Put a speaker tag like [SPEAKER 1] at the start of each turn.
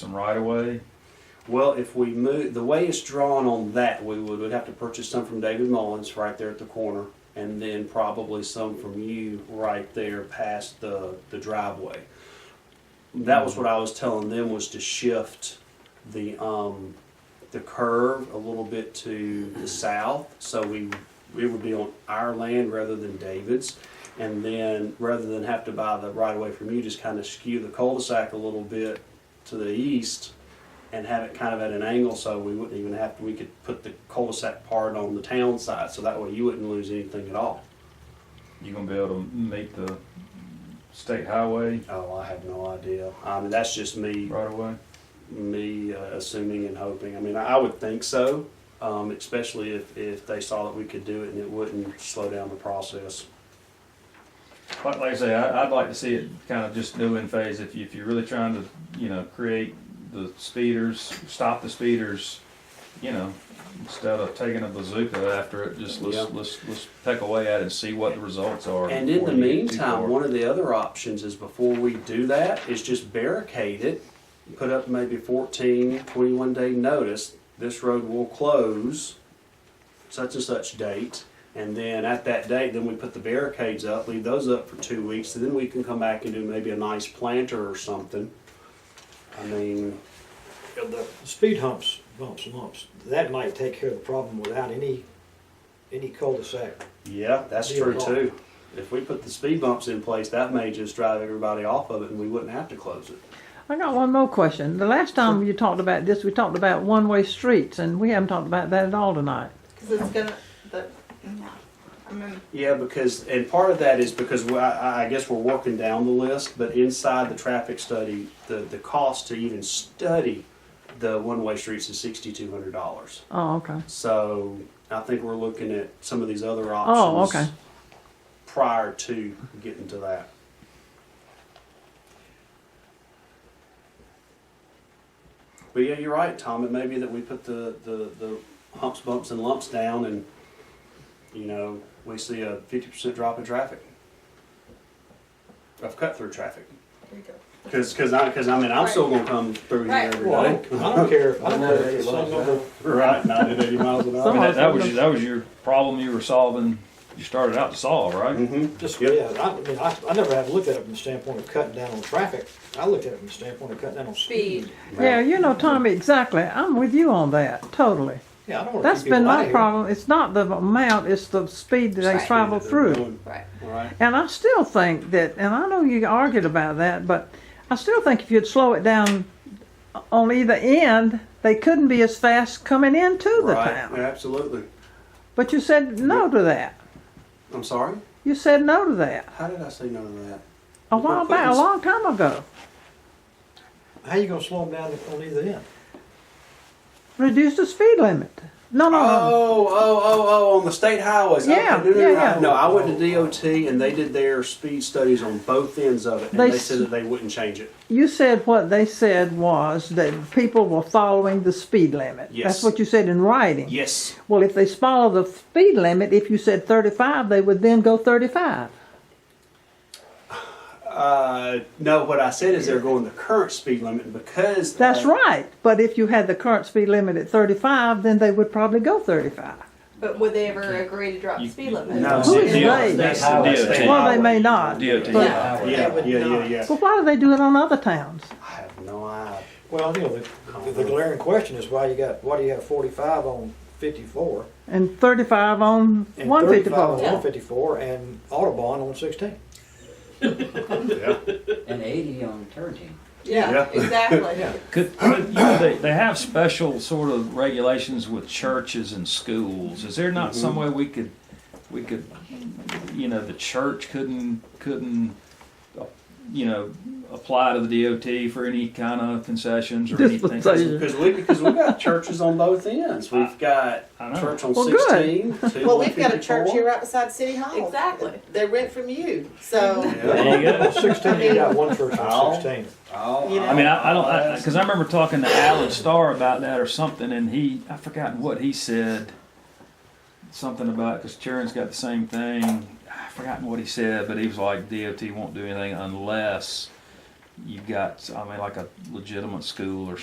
[SPEAKER 1] some right of way.
[SPEAKER 2] Well, if we move, the way it's drawn on that, we would, would have to purchase some from David Mullins right there at the corner, and then probably some from you right there past the, the driveway. That was what I was telling them was to shift the, um, the curve a little bit to the south, so we, it would be on our land rather than David's. And then, rather than have to buy the right of way from you, just kind of skew the cul-de-sac a little bit to the east and have it kind of at an angle so we wouldn't even have to, we could put the cul-de-sac part on the town side, so that way you wouldn't lose anything at all.
[SPEAKER 1] You gonna be able to meet the state highway
[SPEAKER 2] Oh, I have no idea. I mean, that's just me,
[SPEAKER 1] right away?
[SPEAKER 2] me uh, assuming and hoping. I mean, I would think so, um, especially if, if they saw that we could do it and it wouldn't slow down the process.
[SPEAKER 1] Like, like I say, I, I'd like to see it kind of just do in phase. If you, if you're really trying to, you know, create the speeders, stop the speeders, you know, instead of taking a bazooka after it, just let's
[SPEAKER 2] Yeah.
[SPEAKER 1] let's let's peck away at it and see what the results are.
[SPEAKER 2] And in
[SPEAKER 1] before
[SPEAKER 2] the
[SPEAKER 1] you get too far.
[SPEAKER 2] meantime, one of the other options is before we do that, is just barricade it, put up maybe 14, 21 day notice, this road will close such and such date, and then at that date, then we put the barricades up, leave those up for two weeks, and then we can come back and do maybe a nice planter or something. I mean,
[SPEAKER 3] Yeah, The speed humps, bumps, lumps, that might take care of the problem without any, any cul-de-sac.
[SPEAKER 2] yeah, that's true too. If we put the speed bumps in place, that may just drive everybody off of it, and we wouldn't have to close it.
[SPEAKER 4] I got one more question. The last time you talked about this, we talked about one-way streets, and we haven't talked about that at all tonight.
[SPEAKER 5] Because it's gonna, the, no, I mean,
[SPEAKER 2] Yeah, because, and part of that is because we- I, I guess we're working down the list, but inside the traffic study, the, the cost to even study the one-way streets is sixty-two hundred dollars.
[SPEAKER 4] Oh, okay.
[SPEAKER 2] So I think we're looking at some of these other
[SPEAKER 4] Oh,
[SPEAKER 2] options.
[SPEAKER 4] okay.
[SPEAKER 2] Prior to getting to that. But yeah, you're right, Tom. It may be that we put the, the, the humps, bumps, and lumps down and, you know, we see a fifty percent drop in traffic. Of cut-through traffic.
[SPEAKER 5] there you go.
[SPEAKER 2] Cause, cause I, cause I mean, I'm still gonna come through here
[SPEAKER 5] Right.
[SPEAKER 2] every
[SPEAKER 3] Well, I
[SPEAKER 2] day.
[SPEAKER 3] don't, I don't care, I don't care if it's some other-
[SPEAKER 2] Right, ninety, to eighty miles an
[SPEAKER 1] I mean,
[SPEAKER 2] hour.
[SPEAKER 1] that, that was that was your problem you were solving. You started out to solve, right?
[SPEAKER 2] Mm-hmm.
[SPEAKER 3] just,
[SPEAKER 2] Yep.
[SPEAKER 3] yeah, I, I mean, I, I never have looked at it from the standpoint of cutting down on traffic. I looked at it from the standpoint of cutting down on speed.
[SPEAKER 5] Speed.
[SPEAKER 4] Yeah, you know, Tommy, exactly. I'm with you on that, totally.
[SPEAKER 3] Yeah, I don't wanna
[SPEAKER 4] That's
[SPEAKER 3] keep people
[SPEAKER 4] been
[SPEAKER 3] out of
[SPEAKER 4] my
[SPEAKER 3] here.
[SPEAKER 4] problem. It's not the amount, it's the speed that they
[SPEAKER 5] Right.
[SPEAKER 4] travel through.
[SPEAKER 5] Right.
[SPEAKER 2] Right.
[SPEAKER 4] And I still think that, and I know you argued about that, but I still think if you'd slow it down on either end, they couldn't be as fast coming into the
[SPEAKER 2] Right.
[SPEAKER 4] town.
[SPEAKER 2] Yeah, absolutely.
[SPEAKER 4] But you said no to that.
[SPEAKER 2] I'm sorry.
[SPEAKER 4] You said no to that
[SPEAKER 2] How did I say no to that?
[SPEAKER 4] a while back, a long time ago.
[SPEAKER 3] How you gonna slow them down on either end?
[SPEAKER 4] Reduce the speed limit. No, no, no.
[SPEAKER 2] Oh, oh, oh, oh! On the state highways. Okay,
[SPEAKER 4] Yeah,
[SPEAKER 2] no, no, no,
[SPEAKER 4] yeah,
[SPEAKER 2] no.
[SPEAKER 4] yeah.
[SPEAKER 2] No, I went to DOT and they did their speed studies on both ends of it, and they,
[SPEAKER 4] They
[SPEAKER 2] said
[SPEAKER 4] s-
[SPEAKER 2] that they wouldn't change it.
[SPEAKER 4] You said what they said was that people were following the speed limit.
[SPEAKER 2] Yes.
[SPEAKER 4] That's what you said in writing.
[SPEAKER 2] Yes.
[SPEAKER 4] Well, if they follow the speed limit, if you said 35, they would then go 35.
[SPEAKER 2] Uh, no, what I said is they're going the current speed limit and because
[SPEAKER 4] That's
[SPEAKER 2] uh,
[SPEAKER 4] right. But if you had the current speed limit at 35, then they would probably go 35.
[SPEAKER 5] But would they ever agree to drop the
[SPEAKER 1] You-
[SPEAKER 5] speed limit?
[SPEAKER 2] No,
[SPEAKER 4] Who is
[SPEAKER 2] state-
[SPEAKER 4] they?
[SPEAKER 2] that's
[SPEAKER 1] DOT.
[SPEAKER 2] DOT.
[SPEAKER 4] Well, they may not.
[SPEAKER 1] DOT.
[SPEAKER 4] But-
[SPEAKER 5] Yeah.
[SPEAKER 2] Yeah, yeah, yeah, yeah.
[SPEAKER 4] Well, why do they do it on other towns?
[SPEAKER 2] I have no idea.
[SPEAKER 3] Well, you know, the, the glaring question is why you got, why do you have forty-five on fifty-four?
[SPEAKER 4] And 35 on
[SPEAKER 3] and 35 on
[SPEAKER 4] 154.
[SPEAKER 3] one fifty-four and Autobahn on sixteen?
[SPEAKER 2] Yeah.
[SPEAKER 6] and 80 on Turgid.
[SPEAKER 5] Yeah,
[SPEAKER 2] Yeah.
[SPEAKER 5] exactly.
[SPEAKER 3] Yeah.
[SPEAKER 1] Could, could, you know, they, they have special sort of regulations with churches and schools. Is there not some way we could, we could, you know, the church couldn't, couldn't, uh, you know, apply to the DOT for any kind of concessions or anything?
[SPEAKER 4] Dispensation.
[SPEAKER 2] Because we because we've got churches on both ends. We've got
[SPEAKER 1] I know.
[SPEAKER 2] church on
[SPEAKER 4] Well, good.
[SPEAKER 2] sixteen. two
[SPEAKER 7] Well,
[SPEAKER 2] on
[SPEAKER 7] we've got a church
[SPEAKER 2] 54.
[SPEAKER 7] here right beside City Hall.
[SPEAKER 5] Exactly.
[SPEAKER 7] They rent from you, so.
[SPEAKER 2] Yeah.
[SPEAKER 1] There you go.
[SPEAKER 3] On Sixteen, you got one church
[SPEAKER 2] Ow.
[SPEAKER 3] on sixteen.
[SPEAKER 2] Oh,
[SPEAKER 7] You know.
[SPEAKER 1] I mean, I, I don't, because I, remember talking to Alan Starr about that or something, and he, I forgotten what he said. Something about because Sharon's got the same thing. I forgotten what he said, but he was like, DOT won't do anything unless you've got, I mean, like a legitimate school or